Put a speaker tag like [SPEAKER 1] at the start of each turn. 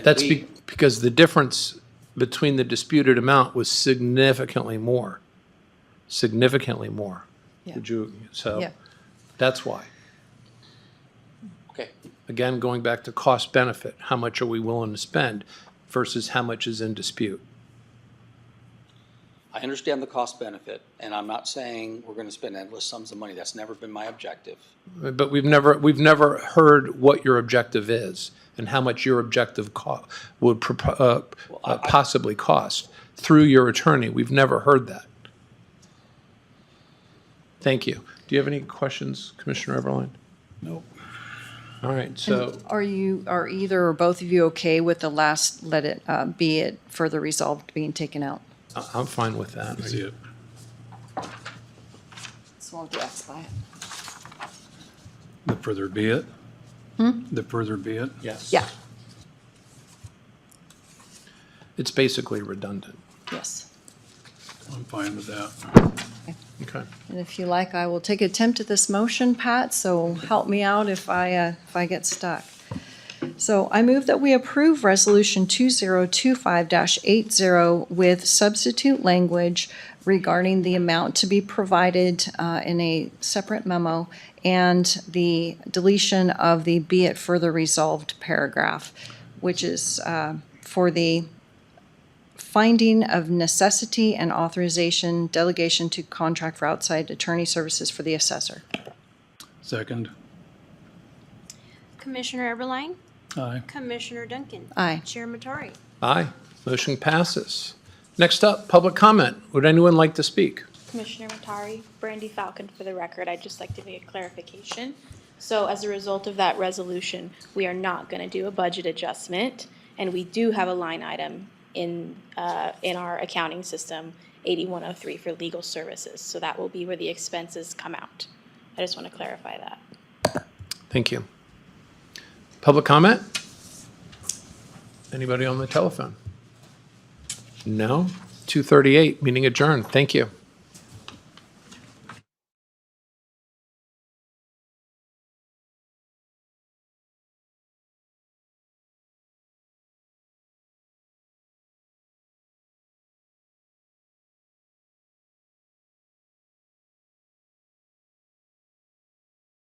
[SPEAKER 1] That's
[SPEAKER 2] We-
[SPEAKER 1] be- because the difference between the disputed amount was significantly more, significantly more.
[SPEAKER 3] Yeah.
[SPEAKER 1] Would you, so,
[SPEAKER 3] Yeah.
[SPEAKER 1] that's why.
[SPEAKER 2] Okay,
[SPEAKER 1] Again, going back to cost benefit, how much are we willing to spend versus how much is in dispute?
[SPEAKER 2] I understand the cost benefit, and I'm not saying we're gonna spend endless sums of money. That's never been my objective.
[SPEAKER 1] But we've never, we've never heard what your objective is and how much your objective co- would propo- uh, uh, possibly cost through your attorney. We've never heard that. Thank you. Do you have any questions, Commissioner Everline?
[SPEAKER 4] Nope.
[SPEAKER 1] All right, so
[SPEAKER 3] Are you, are either or both of you okay with the last, let it uh, be it further resolved being taken out?
[SPEAKER 1] I- I'm fine with that.
[SPEAKER 4] See it.
[SPEAKER 3] So I'll just by it.
[SPEAKER 4] The further be it. The further be it.
[SPEAKER 1] Yes.
[SPEAKER 3] Yeah,
[SPEAKER 1] It's basically redundant.
[SPEAKER 3] yes.
[SPEAKER 4] I'm fine with that.
[SPEAKER 1] Okay.
[SPEAKER 3] And if you like, I will take attempt at this motion, Pat, so help me out if I, uh, if I get stuck. So I move that we approve Resolution 2025-80 with substitute language regarding the amount to be provided uh, in a separate memo and the deletion of the be it further resolved paragraph, which is uh, for the finding of necessity and authorization delegation to contract for outside attorney services for the assessor.
[SPEAKER 4] Second.
[SPEAKER 5] Commissioner Eberline,
[SPEAKER 4] Aye.
[SPEAKER 5] Commissioner Duncan.
[SPEAKER 3] Aye.
[SPEAKER 5] Chair Matari.
[SPEAKER 1] Aye, motion passes. Next up, public comment. Would anyone like to speak?
[SPEAKER 6] Commissioner Matari, Brandy Falcon for the record. I'd just like to make a clarification. So as a result of that resolution, we are not going to do a budget adjustment, and we do have a line item in, uh, in our accounting system, 8103 for legal services. So that will be where the expenses come out. I just want to clarify that.
[SPEAKER 1] Thank you. Public comment? Anybody on the telephone? No? 238, meeting adjourned. Thank you.